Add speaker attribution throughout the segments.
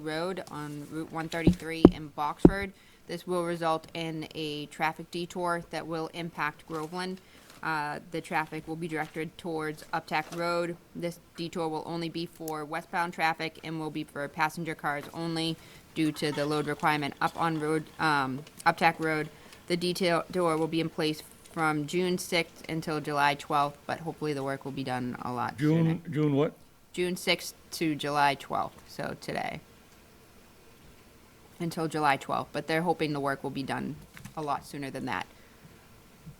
Speaker 1: Road on Route 133 in Boxford. This will result in a traffic detour that will impact Groveland. Uh, The traffic will be directed towards Uptack Road. This detour will only be for westbound traffic and will be for passenger cars only due to the load requirement up on road, um, Uptack Road. The detail door will be in place from June 6th until July 12th, but hopefully the work will be done a lot sooner.
Speaker 2: June, June what?
Speaker 1: June 6th to July 12th, so today. Until July 12th, but they're hoping the work will be done a lot sooner than that.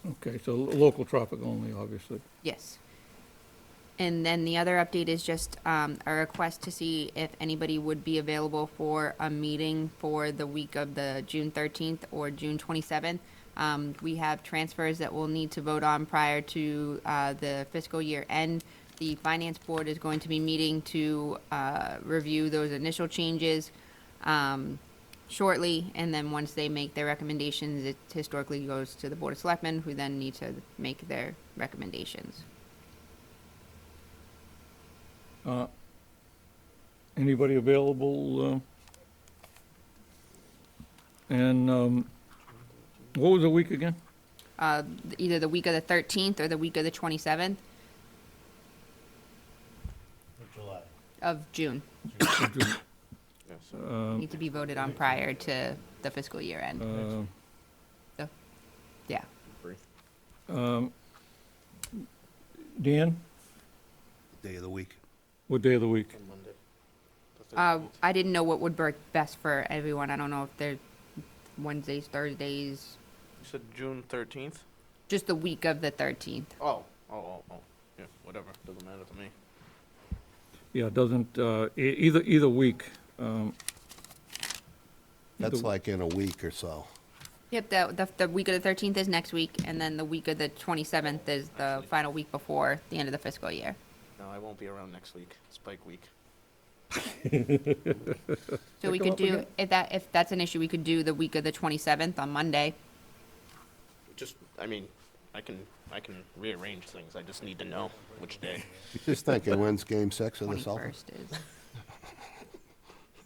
Speaker 2: Okay, so lo- local traffic only, obviously.
Speaker 1: Yes. And then the other update is just um, a request to see if anybody would be available for a meeting for the week of the June 13th or June 27th. Um, We have transfers that we'll need to vote on prior to uh, the fiscal year end. The Finance Board is going to be meeting to uh, review those initial changes um, shortly, and then once they make their recommendations, it historically goes to the Board of Selectmen, who then need to make their recommendations.
Speaker 2: Uh, Anybody available? uh, And um, what was the week again?
Speaker 1: Uh, either the week of the 13th or the week of the 27th
Speaker 3: of July.
Speaker 1: of June.
Speaker 2: Uh,
Speaker 1: Need to be voted on prior to the fiscal year end.
Speaker 2: uh,
Speaker 1: Yeah.
Speaker 2: um, Dan,
Speaker 3: Day of the week.
Speaker 2: what day of the week?
Speaker 1: Uh, I didn't know what would work best for everyone. I don't know if they're Wednesdays, Thursdays,
Speaker 4: You said June thirteenth.
Speaker 1: just the week of the 13th.
Speaker 4: Oh, oh, oh, oh. Yeah, whatever. Doesn't matter to me.
Speaker 2: Yeah, it doesn't, uh, e- either, either week. um,
Speaker 3: That's
Speaker 2: either-
Speaker 3: like in a week or so.
Speaker 1: Yep, the, the, the week of the 13th is next week, and then the week of the 27th is the
Speaker 4: Actually.
Speaker 1: final week before the end of the fiscal year.
Speaker 4: No, I won't be around next week. Spike week.
Speaker 1: So we
Speaker 2: Pick 'em
Speaker 1: could
Speaker 2: up
Speaker 1: do,
Speaker 2: again?
Speaker 1: if that, if that's an issue, we could do the week of the 27th on Monday.
Speaker 4: Just, I mean, I can, I can rearrange things. I just need to know which day.
Speaker 3: Just thinking, when's game six of the Celtics?
Speaker 1: 21st is,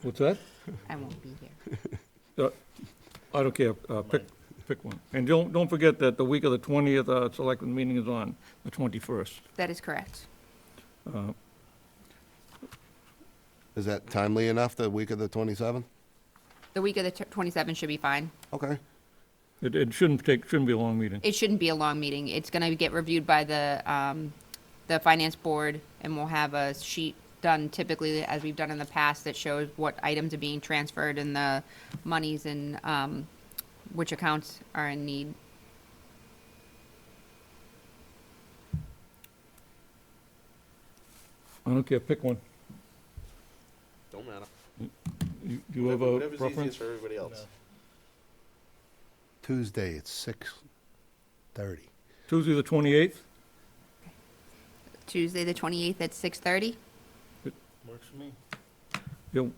Speaker 2: What's that?
Speaker 1: I won't be here.
Speaker 2: Uh, I don't care, uh, pick, pick one. And don't, don't forget that the week of the 20th, uh, selectmen meeting is on the 21st.
Speaker 1: That is correct.
Speaker 3: Is that timely enough, the week of the 27th?
Speaker 1: The week of the 27th should be fine.
Speaker 3: Okay.
Speaker 2: It, it shouldn't take, shouldn't be a long meeting.
Speaker 1: It shouldn't be a long meeting. It's going to get reviewed by the, um, the finance board, and we'll have a sheet done typically, as we've done in the past, that shows what items are being transferred and the monies and, um, which accounts are in need.
Speaker 2: I don't care, pick one.
Speaker 4: Don't matter.
Speaker 2: You- Do you have a preference?
Speaker 4: easiest for everybody else.
Speaker 3: Tuesday, it's 6:30.
Speaker 2: Tuesday, the 28th?
Speaker 1: Tuesday, the 28th at 6:30?
Speaker 5: Works for me.
Speaker 2: Yeah.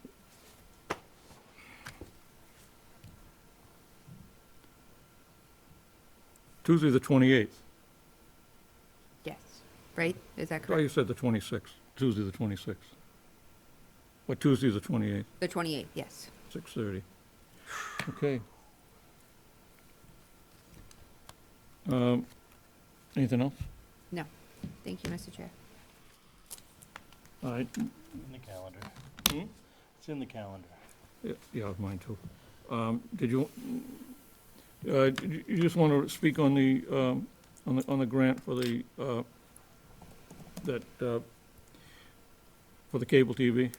Speaker 2: Tuesday, the 28th.
Speaker 1: Yes. Right? Is that
Speaker 2: Oh, you
Speaker 1: correct?
Speaker 2: said the 26th, Tuesday, the 26th. But Tuesday, the 28th,
Speaker 1: The 28th, yes.
Speaker 2: 6:30. Okay. Um, Anything else?
Speaker 1: No. Thank you, Mr. Chair.
Speaker 2: All right, Hmm?
Speaker 5: In the calendar. It's in the calendar.
Speaker 2: Yeah, Yeah, mine too. Um, Did you, uh, did you you just want to speak on the, um, on the, on the grant for the, uh, that, uh, for the cable TV?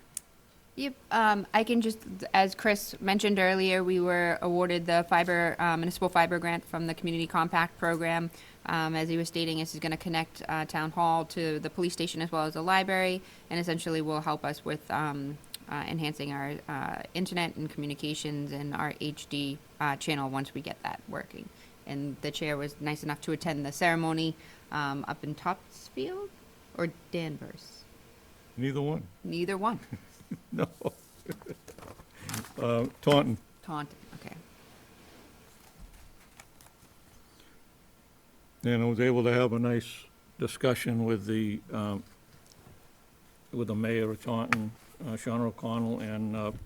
Speaker 1: Yep, um, I can just, as Chris mentioned earlier, we were awarded the fiber, uh, municipal fiber grant from the Community Compact Program. Um, as he was stating, this is gonna connect, uh, Town Hall to the police station as well as the library, and essentially will help us with, um, uh, enhancing our, uh, internet and communications and our HD, uh, channel once we get that working. And the chair was nice enough to attend the ceremony, um, up in Topsfield or Danvers,
Speaker 2: Neither one.
Speaker 1: neither one.
Speaker 2: No. Uh, Taunton,
Speaker 1: Taunton, okay.
Speaker 2: and I was able to have a nice discussion with the, um, with the mayor of Taunton, uh, Sean O'Connell, and uh,